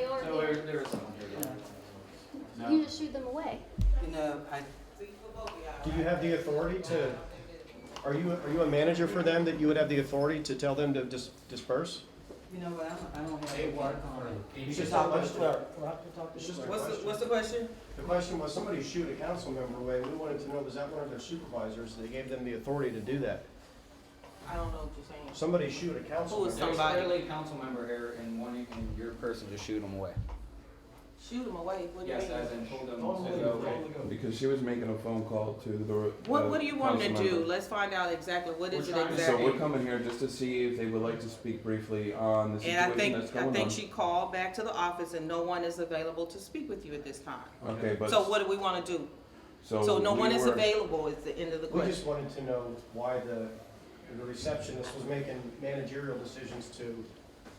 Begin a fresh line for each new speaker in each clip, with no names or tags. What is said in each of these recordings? there, there is someone here.
You just shooed them away.
You know, I,
Do you have the authority to, are you, are you a manager for them that you would have the authority to tell them to dis- disperse?
you know what, I don't, I don't have
They
a
want
work on it.
for.
It's just a question. It's just a
What's the,
question.
what's the question?
The question was, somebody shoot a council member away, we wanted to know, was that one of their supervisors, they gave them the authority to do that?
I don't know what you're saying.
Somebody shoot a council
Who
member.
was
There's
Somebody.
clearly a council member here and wanting your person to shoot them away.
Shoot them away, what do you
Yes, as
mean?
in told them to go.
Because she was making a phone call to the.
What,
the
what do you want 'em to
council
do?
member.
Let's find out exactly, what is
We're
it
trying to-
So
exactly?
we're coming here just to see if they would like to speak briefly on the
And I
situation
think,
that's
I
going
think
on.
she called back to the office and no one is available to speak with you at this time.
Okay, but.
So what do we wanna do?
so
So no
we
one is
were-
available is the end of the
We
question.
just wanted to know why the, the receptionist was making managerial decisions to,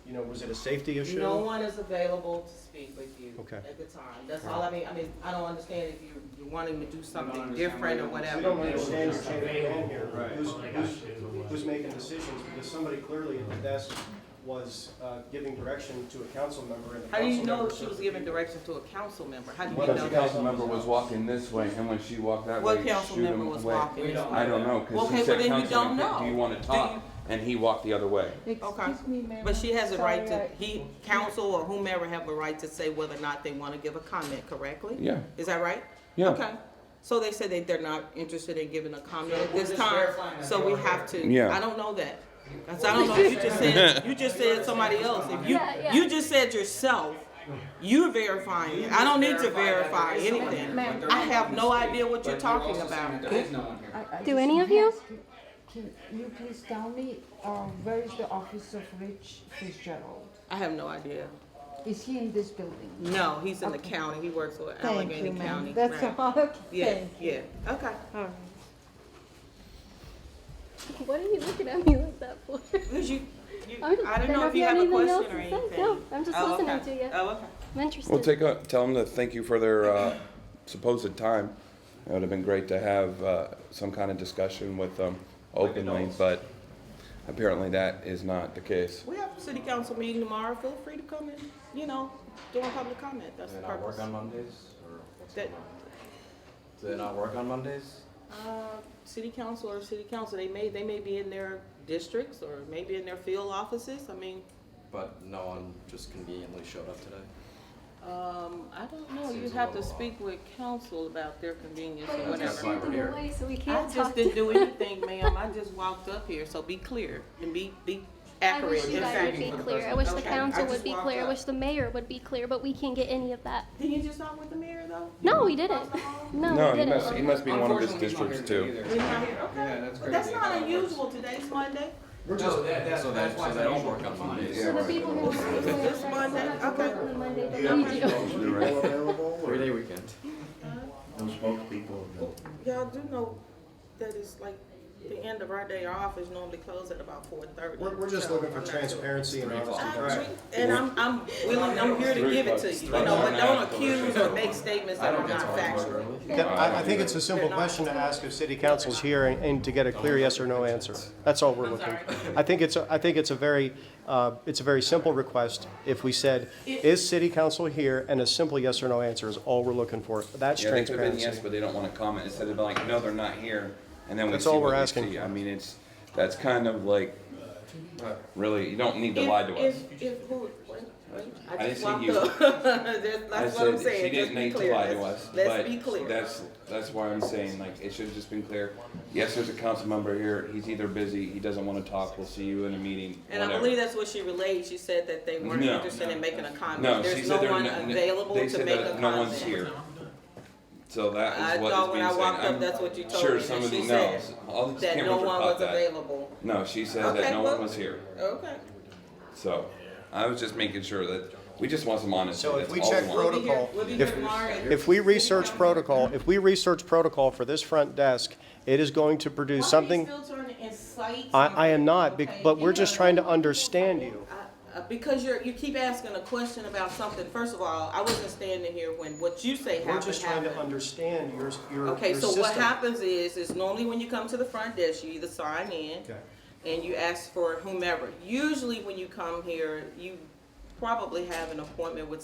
you know, was it a safety issue?
No one is available to speak with you
Okay.
at the time. That's all I mean, I mean, I don't understand if you, you want him to do something
understand
different or
what
We don't
whatever.
understand what's going on here,
Right.
who's, who's, who's making decisions, because somebody clearly at the desk was, uh, giving direction to a council member and the council member.
How do you know she
said-
was giving direction to a council member? How do you
Because the
know?
council member was walking this way and when she walked that way,
What council
shoot
member
him
was
away.
walking
We
this
don't-
way?
I don't know, cause
Okay,
he
well,
said,
then you don't
Councilman,
know.
do you wanna
Do
talk?
you-
And he walked the other way.
Excuse me, ma'am.
But she has a right to,
Sorry, I-
he, council or whomever have a right to say whether or not they want to give a comment, correctly?
Yeah,
Is that right?
yeah,
Okay. So they said that they're not interested in giving a comment at
We're
this
just
time,
verifying that
so
they
we
are
have to.
Yeah.
I don't know that. That's, I don't know, you just said, you just said somebody else. If you,
Yeah, yeah.
you just said yourself, you're verifying it. I don't need to verify
that there is someone here,
anything.
but they're
I have
not
no
gonna
idea what
speak.
you're
But you're
talking
also saying
about.
that There is no one here.
I- I
Do
just
any of
have
you?
to- Can you please tell me, um, where is the office of Rich Fitzgerald?
I have no idea.
Is he in this building?
No, he's in the
Okay.
county. He works for
Thank
Allegheny
you,
County.
ma'am. That's
Right.
all, okay.
Yeah,
Thank you.
yeah, okay.
All right.
What are you looking at me like that for?
Because you, you,
I'm just-
I don't
don't
know if
you
you have a
anything else to
question or
say.
anything.
No, I'm just
Oh,
listening
okay.
to you.
Oh, okay.
I'm interested.
we'll take a, tell them to thank you for their, uh, supposed time. It would've been great to have, uh, some kind of discussion with them openly,
adults.
but apparently that is not the case.
We have a city council meeting tomorrow. Feel free to come and, you know, do a public comment. That's the purpose.
Mondays or what's
That-
going on? Do they not work on Mondays?
Uh, City council or city council, they may, they may be in their districts or maybe in their field offices. I mean,
But no one just conveniently showed up today.
um, I don't know. You
Seems a
have to
little off.
speak with council about their convenience or
But you just
whatever.
why
shooed
we're here.
them away, so we
I
can't
just
talk to
didn't do anything, ma'am. I just walked up here, so be clear and be, be
I
accurate.
wish you
in
guys
fact.
would be
Okay.
clear. I wish the
Okay.
council
I just
would be
walked
clear. I
up.
wish the mayor would be clear, but we can't get any of that.
Did you just talk with the mayor though?
No, we didn't. No,
No,
we
he
didn't.
must, he must be one of his
Unfortunately, he's not
districts
here
too.
either.
We're not here, okay.
Yeah, that's
But that's
crazy.
not unusual. Today's Monday.
We're just,
No, that, that's,
So
that's
that-
why
so
it's
they don't
unusual
work on
for Mondays.
Mondays.
So the people who
This-
are
this Monday, okay.
on the Monday
Do you have
that we
any
do.
spoken people available
Three day
or
weekend.
no spokespeople? No.
Y'all do know that it's like the end of our day. Our office normally closes at about four thirty.
we're, we're just looking for transparency and honesty, right?
And I'm, I'm willing, I'm here to give it to you, you know, but don't accuse or make statements
I
that are
don't get to
not
work
factual.
early.
Yeah, I, I think it's a simple question to ask if city council's here and, and to get a clear yes or no answer. That's all we're looking. I think it's, a- I think it's a very, uh, it's a very simple request. If we said, is city council here? And a simple yes or no answer is all we're looking for. That's
Yeah, they could have been yes,
transparency.
but they don't want to comment. Instead of like, no, they're not here, and then we
That's
see
all
what
we're
we
asking.
see. I mean, it's, that's kind of like, really, you don't need to lie to us.
If- If, if, who, what? I
didn't
just
see
walked
you.
up. That's
I
that's what I'm
said
saying,
She
just
didn't
be
need to
clear.
lie to
Let's-
us,
Let's be
but
clear.
that's, that's why I'm saying, like, it should have just been clear. Yes, there's a council member here. He's either busy, he doesn't want to talk, we'll see you in a meeting,
And I
whatever.
believe that's what she relayed. She said that they weren't
No.
interested in making a
No,
comment.
she
There's no
said there,
one
no- no-
available
they
to
said
make a
that
comment.
no one's here. So that
I
is what
thought
is
when
being
I
said.
walked up,
I'm
that's what you told
Sure,
me, and
somebody
she said
knows. All these
that no
cameras are
one
caught
was
that.
available.
No, she said
Okay,
that no
well-
one was here.
Okay.
So I was just making sure that we just want some honesty.
So if
That's
we
all
check
want.
We'll be here,
Protocol.
we'll be here
If-
tomorrow. at-
If we research protocol, if we research protocol for this front desk, it is going to
Why are you
produce something.
still trying to incite
I, I am not, bec-
something?
but
Okay,
we're
you
just
know,
trying to understand you.
I- uh, Because you're, you keep asking a question about something. First of all, I wasn't standing here when what you say
We're
happened
just trying to
happened.
understand your, your,
Okay,
your
so what
system.
happens is, is normally when you come to the front desk, you either sign in
Okay.
and you ask for whomever. Usually when you come here, you probably have an appointment with